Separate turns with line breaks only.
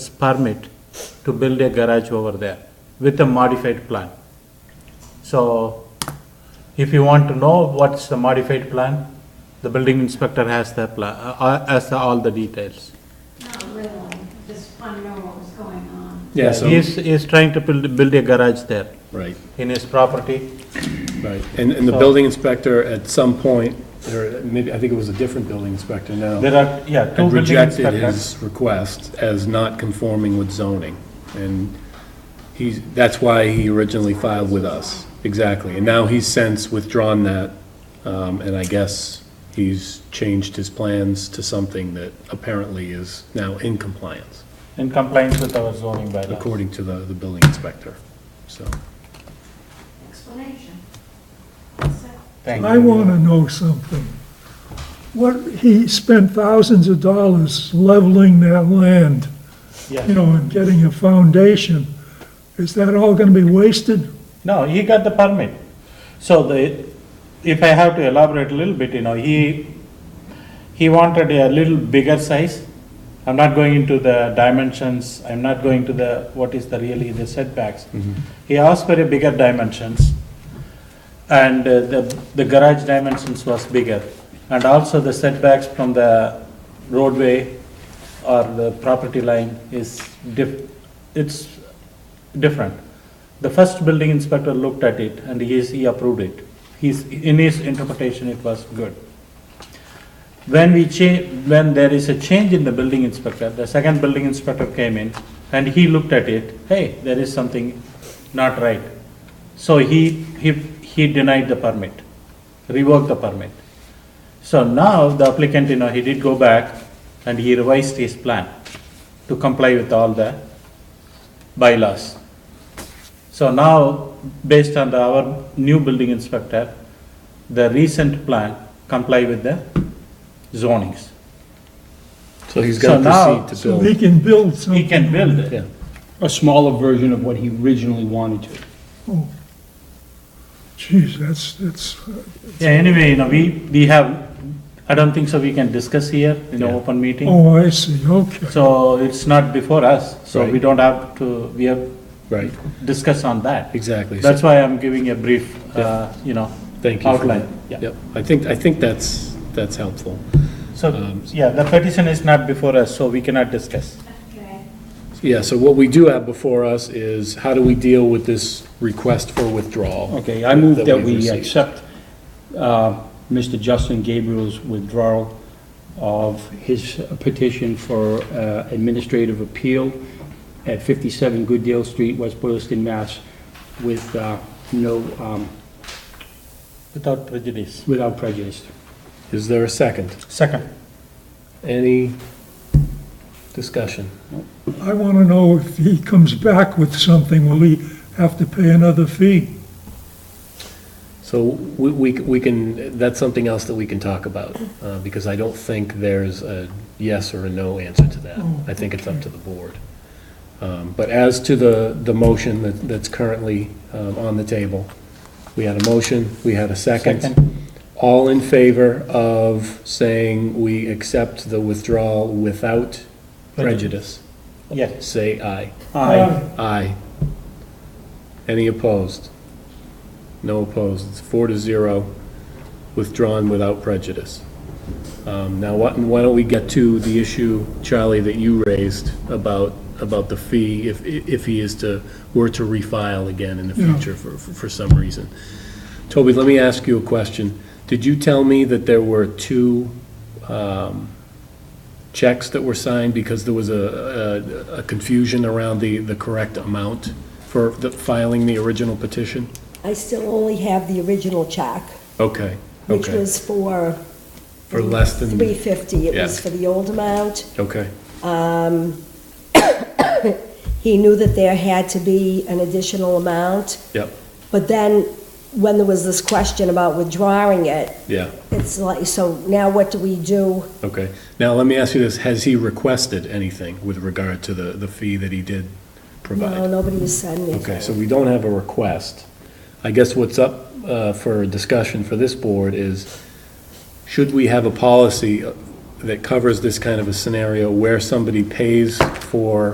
permit to build a garage over there with a modified plan. So if you want to know what's the modified plan, the building inspector has the plan, has all the details.
Not really, just want to know what was going on.
Yeah,
He
so,
is, he is trying to build, build a garage there
right,
in his property.
right. And, and the building inspector at some point, or maybe, I think it was a different building inspector now,
There are, yeah, two
had
building
rejected
inspectors.
his request as not conforming with zoning. And he's, that's why he originally filed with us, exactly. And now he's since withdrawn that, um, and I guess he's changed his plans to something that apparently is now in compliance,
in compliance with our zoning bylaw.
according to the, the building inspector, so.
Explanation. That's it.
Thank
I
you.
want to know something. What, he spent thousands of dollars leveling that land,
Yeah.
you know, and getting a foundation. Is that all going to be wasted?
No, he got the permit. So the, if I have to elaborate a little bit, you know, he, he wanted a little bigger size. I'm not going into the dimensions, I'm not going to the, what is the really the setbacks. He asked for a bigger dimensions. And uh, the, the garage dimensions was bigger. And also the setbacks from the roadway or the property line is diff, it's different. The first building inspector looked at it and he, is- he approved it. He's, in his interpretation, it was good. When we cha, when there is a change in the building inspector, the second building inspector came in and he looked at it, hey, there is something not right. So he, he, he denied the permit, revoked the permit. So now the applicant, you know, he did go back and he revised his plan to comply with all the bylaws. So now, based on the- our new building inspector, the recent plan comply with the zonings.
So he's
gotta So now- proceed
got to
So he can build
He
something?
can build it.
Yeah.
a smaller version of what he originally wanted to.
Oh, Geez, that's, that's,
Yeah, anyway, you know, we, we have, I don't think so we can discuss here in an
Yeah.
open meeting.
oh, I see, okay.
So it's not before us, so we
Right.
don't have to, we have
Right,
discuss on that.
exactly. So-
That's why I'm giving a brief, uh, you know,
Thank you. for
outline,
that.
yeah.
Yep, I think, I think that's, that's helpful.
So,
Um,
yeah, the petition is not before us, so we cannot discuss.
Okay.
Yeah, so what we do have before us is how do we deal with this request for withdrawal?
Okay, I move that
we've
we
received?
accept uh, Mr. Justin Gabriel's withdrawal of his petition for uh, administrative appeal at 57 Good Deal Street, West Boylston, Mass, with uh, no, um,
Without prejudice.
without prejudice.
Is there a second?
Second.
Any discussion?
I want to know if he comes back with something, will he have to pay another fee?
So we, we we can, that's something else that we can talk about, uh, because I don't think there's a yes or a no answer to that.
Oh,
I think it's up to the board. Um, But as to the, the motion that that's currently um, on the table, we had a motion, we had a second.
Second.
All in favor of saying we accept the withdrawal without prejudice,
Yes.
say aye.
Aye.
Aye. Any opposed? No opposed, it's four to zero, withdrawn without prejudice. Um, Now, why why don't we get to the issue, Charlie, that you raised about, about the fee, if, if he is to, were to refile again in the
Yeah.
future for, for some reason. Toby, let me ask you a question. Did you tell me that there were two um, checks that were signed because there was a, a- a confusion around the, the correct amount for the- filing the original petition?
I still only have the original check,
Okay,
which
okay,
was for
for less than,
three fifty. It was
Yeah.
for the old amount.
okay,
He knew that there had to be an additional amount,
yep,
but then when there was this question about withdrawing it,
yeah,
it's like, so now what do we do?
okay. Now, let me ask you this, has he requested anything with regard to the, the fee that he did
No,
provide?
nobody has said anything.
Okay, so we don't have a request. I guess what's up uh, for discussion for this board is, should we have a policy that covers this kind of a scenario where somebody pays for